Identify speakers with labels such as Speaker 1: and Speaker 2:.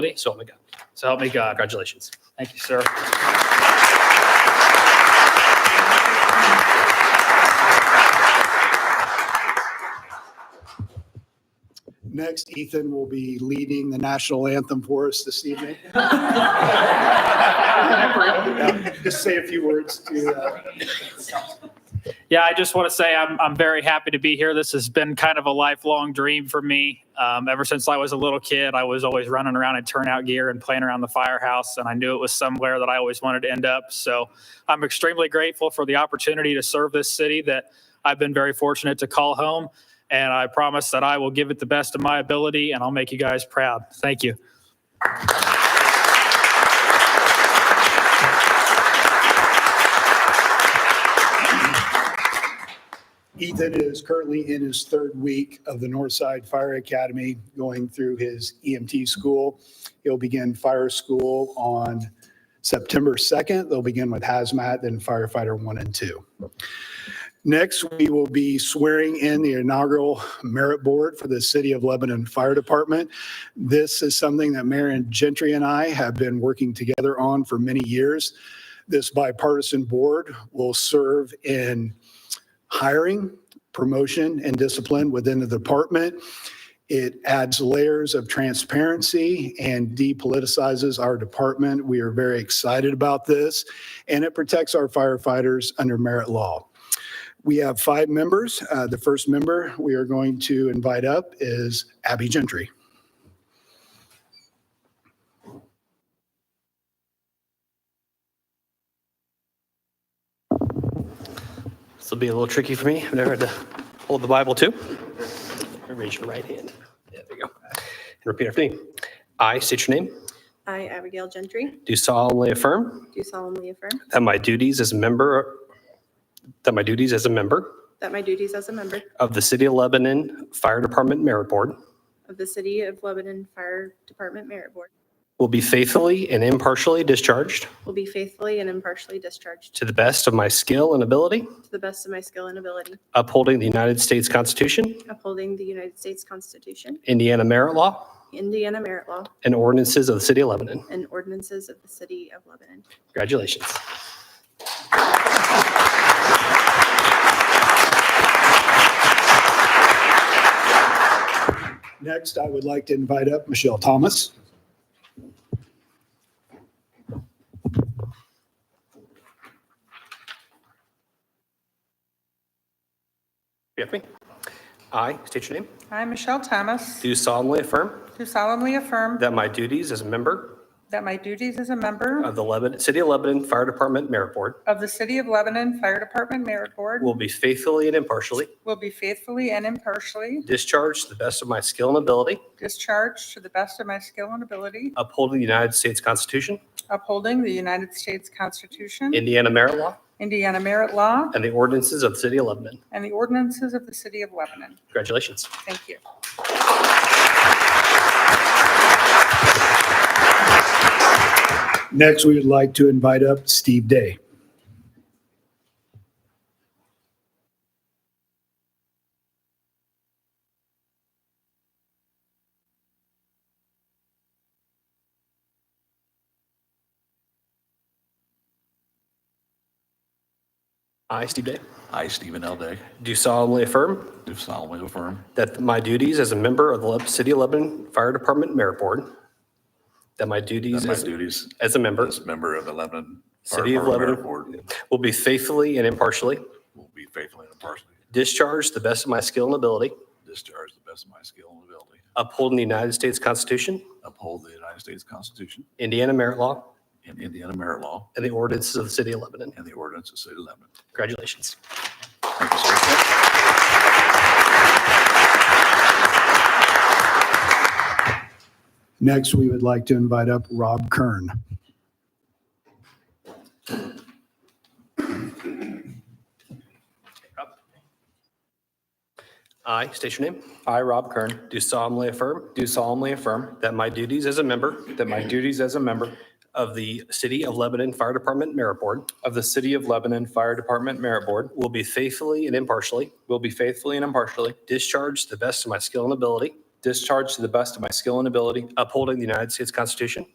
Speaker 1: me, so help me God. So help me God. Congratulations. Thank you, sir.
Speaker 2: Next, Ethan will be leading the national anthem for us this evening. Just say a few words to, uh,
Speaker 1: Yeah, I just want to say I'm, I'm very happy to be here. This has been kind of a lifelong dream for me. Um, ever since I was a little kid, I was always running around in turnout gear and playing around the firehouse, and I knew it was somewhere that I always wanted to end up. So I'm extremely grateful for the opportunity to serve this city that I've been very fortunate to call home. And I promise that I will give it the best of my ability, and I'll make you guys proud. Thank you.
Speaker 2: Ethan is currently in his third week of the Northside Fire Academy, going through his EMT school. He'll begin fire school on September 2nd. They'll begin with hazmat, then firefighter one and two. Next, we will be swearing in the inaugural merit board for the City of Lebanon Fire Department. This is something that Mayor and Gentry and I have been working together on for many years. This bipartisan board will serve in hiring, promotion, and discipline within the department. It adds layers of transparency and depoliticizes our department. We are very excited about this, and it protects our firefighters under merit law. We have five members. Uh, The first member we are going to invite up is Abby Gentry.
Speaker 3: This will be a little tricky for me. I've never had to hold the Bible too. Raise your right hand. There we go. And repeat after me. I state your name.
Speaker 4: I, Abigail Gentry,
Speaker 3: Do solemnly affirm
Speaker 4: do solemnly affirm
Speaker 3: that my duties as a member that my duties as a member
Speaker 4: that my duties as a member
Speaker 3: of the City of Lebanon Fire Department Merit Board
Speaker 4: of the City of Lebanon Fire Department Merit Board
Speaker 3: will be faithfully and impartially discharged
Speaker 4: will be faithfully and impartially discharged
Speaker 3: to the best of my skill and ability,
Speaker 4: to the best of my skill and ability,
Speaker 3: upholding the United States Constitution,
Speaker 4: upholding the United States Constitution,
Speaker 3: Indiana merit law,
Speaker 4: Indiana merit law,
Speaker 3: and ordinances of the City of Lebanon.
Speaker 4: and ordinances of the City of Lebanon.
Speaker 3: Congratulations.
Speaker 2: Next, I would like to invite up Michelle Thomas.
Speaker 3: You have me? I state your name.
Speaker 5: I, Michelle Thomas,
Speaker 3: Do solemnly affirm
Speaker 5: do solemnly affirm
Speaker 3: That my duties as a member
Speaker 5: that my duties as a member
Speaker 3: of the Lebanon, City of Lebanon Fire Department Merit Board
Speaker 5: of the City of Lebanon Fire Department Merit Board
Speaker 3: will be faithfully and impartially
Speaker 5: will be faithfully and impartially
Speaker 3: discharged to the best of my skill and ability,
Speaker 5: discharged to the best of my skill and ability,
Speaker 3: upholding the United States Constitution,
Speaker 5: upholding the United States Constitution,
Speaker 3: Indiana merit law,
Speaker 5: Indiana merit law,
Speaker 3: and the ordinances of the City of Lebanon.
Speaker 5: and the ordinances of the City of Lebanon.
Speaker 3: Congratulations.
Speaker 5: Thank you.
Speaker 2: Next, we would like to invite up Steve Day.
Speaker 3: I, Steve Day,
Speaker 6: I, Stephen L. Day,
Speaker 3: do solemnly affirm
Speaker 6: do solemnly affirm
Speaker 3: that my duties as a member of the Leb- City of Lebanon Fire Department Merit Board, that my
Speaker 6: that
Speaker 3: duties
Speaker 6: my
Speaker 3: as
Speaker 6: duties
Speaker 3: as a member
Speaker 6: as member of the Lebanon Fire
Speaker 3: City of
Speaker 6: Department
Speaker 3: Lebanon.
Speaker 6: Board
Speaker 3: will be faithfully and impartially
Speaker 6: will be faithfully and impartially
Speaker 3: discharged to the best of my skill and ability,
Speaker 6: discharge to the best of my skill and ability,
Speaker 3: upholding the United States Constitution,
Speaker 6: uphold the United States Constitution
Speaker 3: Indiana merit law,
Speaker 6: and Indiana merit law
Speaker 3: and the ordinances of the city of Lebanon.
Speaker 6: and the ordinance of the City of Lebanon.
Speaker 3: Congratulations.
Speaker 6: Thank you, sir.
Speaker 2: Next, we would like to invite up Rob Kern.
Speaker 3: I state your name.
Speaker 7: I, Rob Kern,
Speaker 3: Do solemnly affirm
Speaker 7: do solemnly affirm
Speaker 3: that my duties as a member
Speaker 7: that my duties as a member
Speaker 3: of the City of Lebanon Fire Department Merit Board
Speaker 7: of the City of Lebanon Fire Department Merit Board
Speaker 3: will be faithfully and impartially
Speaker 7: will be faithfully and impartially
Speaker 3: discharged to the best of my skill and ability, discharge to the best of my skill and ability upholding the United States Constitution